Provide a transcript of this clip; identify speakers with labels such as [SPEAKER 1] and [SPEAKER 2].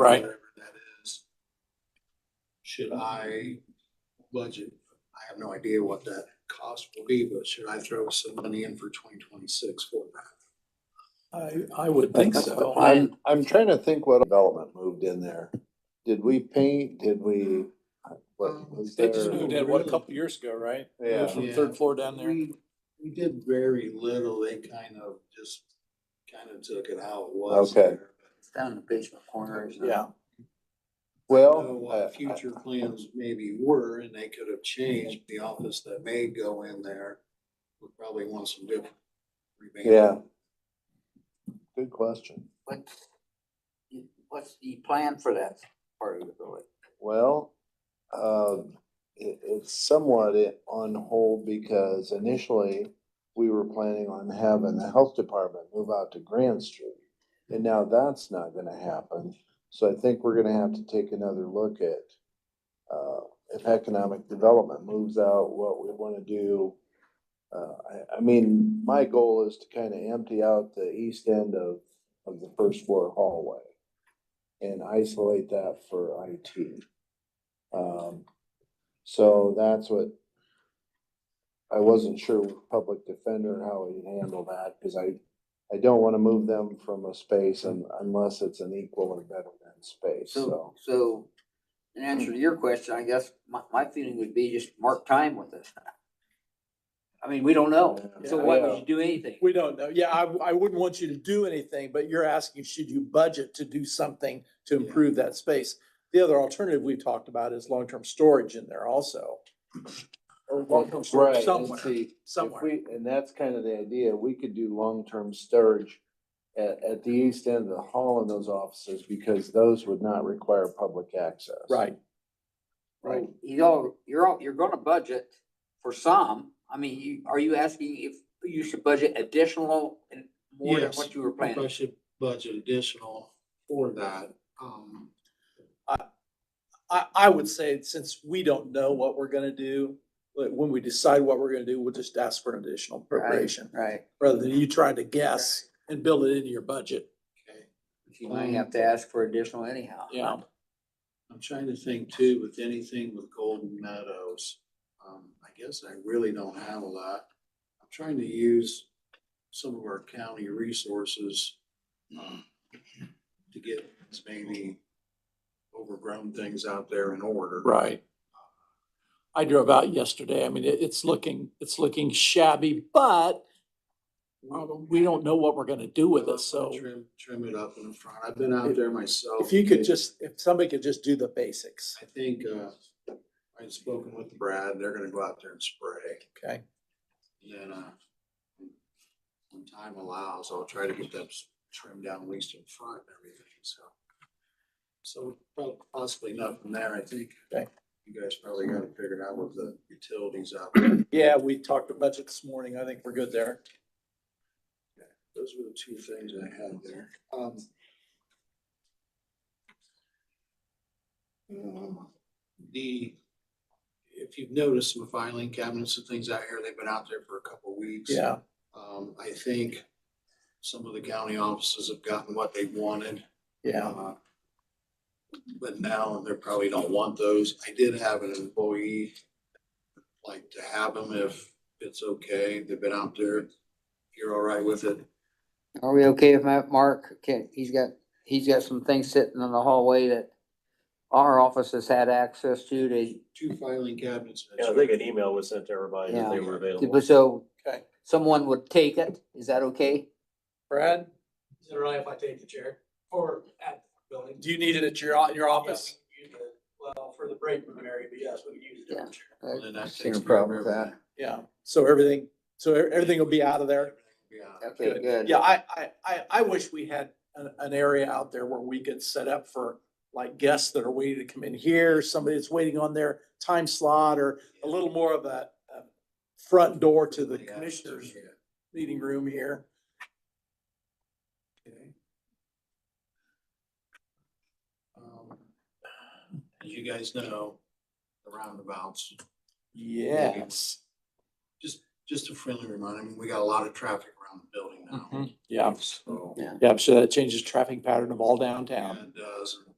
[SPEAKER 1] Right.
[SPEAKER 2] whatever That is. Should I budget? I have no idea what that cost will be, but should I throw some money in for twenty twenty-six for that?
[SPEAKER 1] I, I would think
[SPEAKER 3] That's the
[SPEAKER 1] so.
[SPEAKER 3] I'm, I'm trying to think what development moved in there. Did we paint, did we? what was
[SPEAKER 1] Um, They just
[SPEAKER 3] there?
[SPEAKER 1] moved in, what, a couple years ago, right? It was
[SPEAKER 3] Yeah,
[SPEAKER 1] From
[SPEAKER 2] Yeah.
[SPEAKER 1] third floor down there.
[SPEAKER 2] We, we did very little. They kind of just, kind of took it how it was.
[SPEAKER 3] Okay.
[SPEAKER 2] there.
[SPEAKER 4] It's down in the basement corner. isn't it?
[SPEAKER 1] Yeah.
[SPEAKER 2] I know
[SPEAKER 3] well,
[SPEAKER 2] what
[SPEAKER 3] uh, I-
[SPEAKER 2] Future plans maybe were, and they could have changed the office that may go in there. Would probably want some different. revamping.
[SPEAKER 3] Yeah. good question.
[SPEAKER 4] What, what's the plan for that part of the building?
[SPEAKER 3] Well, um, it, it's somewhat i- on hold because initially we were planning on having the health department move out to Grand Street. And now that's not gonna happen. So I think we're gonna have to take another look at, uh, if economic development moves out, what we wanna do. Uh, I, I mean, my goal is to kind of empty out the east end of, of the first floor hallway and isolate that for IT. Um, so that's what, I wasn't sure with public defender how we handle that, cause I, I don't wanna move them from a space un- unless it's an equal or better than space,
[SPEAKER 4] So,
[SPEAKER 3] so.
[SPEAKER 4] so in answer to your question, I guess my, my feeling would be just mark time with it. I mean, we don't know. So why would you do anything?
[SPEAKER 1] We don't know. Yeah, I, I wouldn't want you to do anything, but you're asking, should you budget to do something to
[SPEAKER 2] Yeah.
[SPEAKER 1] improve that space? The other alternative we've talked about is long-term storage in there also. Or long-term storage
[SPEAKER 3] Right, and
[SPEAKER 1] somewhere,
[SPEAKER 3] see, if
[SPEAKER 1] somewhere.
[SPEAKER 3] we- And that's kind of the idea, we could do long-term storage at, at the east end of the hall in those offices, because those would not require public access.
[SPEAKER 1] Right. Right.
[SPEAKER 3] Oh.
[SPEAKER 4] Well, You all, you're all, you're gonna budget for some. I mean, you, are you asking if you should budget additional and more than
[SPEAKER 2] Yes.
[SPEAKER 4] what you were
[SPEAKER 2] If I
[SPEAKER 4] planning?
[SPEAKER 2] should budget additional for that, um,
[SPEAKER 1] I, I would say since we don't know what we're gonna do, but when we decide what we're gonna do, we'll just ask for an additional appropriation.
[SPEAKER 4] Right.
[SPEAKER 1] Rather than you trying to guess and build it into your budget.
[SPEAKER 2] okay.
[SPEAKER 4] You might have to ask for additional anyhow.
[SPEAKER 1] Yeah.
[SPEAKER 2] I'm trying to think too, with anything with Golden Meadows, um, I guess I really don't have a lot. I'm trying to use some of our county resources, um, to get maybe overgrown things out there in order.
[SPEAKER 1] Right. I drove out yesterday. I mean, it, it's looking, it's looking shabby, but we don't know what we're gonna do with it, so.
[SPEAKER 2] Trim, trim it up in the front. I've been out there myself.
[SPEAKER 1] If you could just, if somebody could just do the basics,
[SPEAKER 2] I think, uh, I've spoken with Brad, they're gonna go out there and spray.
[SPEAKER 1] okay?
[SPEAKER 2] Then, uh, when time allows, I'll try to get that s- trimmed down at least in front and everything, so. So prob- possibly not from there, I think.
[SPEAKER 1] Okay.
[SPEAKER 2] You guys probably got to figure it out with the utilities out there.
[SPEAKER 1] Yeah, we talked about budget this morning. I think we're good there.
[SPEAKER 2] Those were the two things I had there. Um. um, The, if you've noticed some filing cabinets and things out here, they've been out there for a couple weeks.
[SPEAKER 1] Yeah,
[SPEAKER 2] Um, I think some of the county offices have gotten what they wanted.
[SPEAKER 1] yeah.
[SPEAKER 2] uh, But now they probably don't want those. I did have an employee like to have them if it's okay. They've been out there. If You're all right with it.
[SPEAKER 4] Are we okay with that, Mark? Okay, he's got, he's got some things sitting in the hallway that our office has had access to, they,
[SPEAKER 2] Two filing cabinets.
[SPEAKER 5] Yeah, I think an email was sent to everybody that they were available.
[SPEAKER 4] so
[SPEAKER 1] Okay.
[SPEAKER 4] someone would take it, is that okay?
[SPEAKER 1] Brad,
[SPEAKER 6] Is it all right if I take the chair or at the building?
[SPEAKER 1] do you need it at your, your office?
[SPEAKER 6] Yeah, we can use it. Well, for the break room area, but yes, we can use a different chair.
[SPEAKER 2] And that
[SPEAKER 4] Seen a
[SPEAKER 2] takes care of
[SPEAKER 4] problem with
[SPEAKER 2] everything.
[SPEAKER 1] Yeah, so everything, so e- everything will be out of there?
[SPEAKER 2] Yeah.
[SPEAKER 4] Okay,
[SPEAKER 1] Good.
[SPEAKER 4] good.
[SPEAKER 1] Yeah, I, I, I, I wish we had an, an area out there where we could set up for like guests that are waiting to come in here, somebody that's waiting on their time slot or a little more of a, a front door to the
[SPEAKER 2] Yeah.
[SPEAKER 1] commissioners
[SPEAKER 2] Yeah.
[SPEAKER 1] meeting room here.
[SPEAKER 2] Okay. Um, As you guys know, the roundabouts,
[SPEAKER 1] Yes.
[SPEAKER 2] just, just a friendly reminder, I mean, we got a lot of traffic around the building now.
[SPEAKER 1] Yeah,
[SPEAKER 2] So,
[SPEAKER 1] yeah, I'm sure that changes traffic pattern of all downtown.
[SPEAKER 2] and uh, it does, and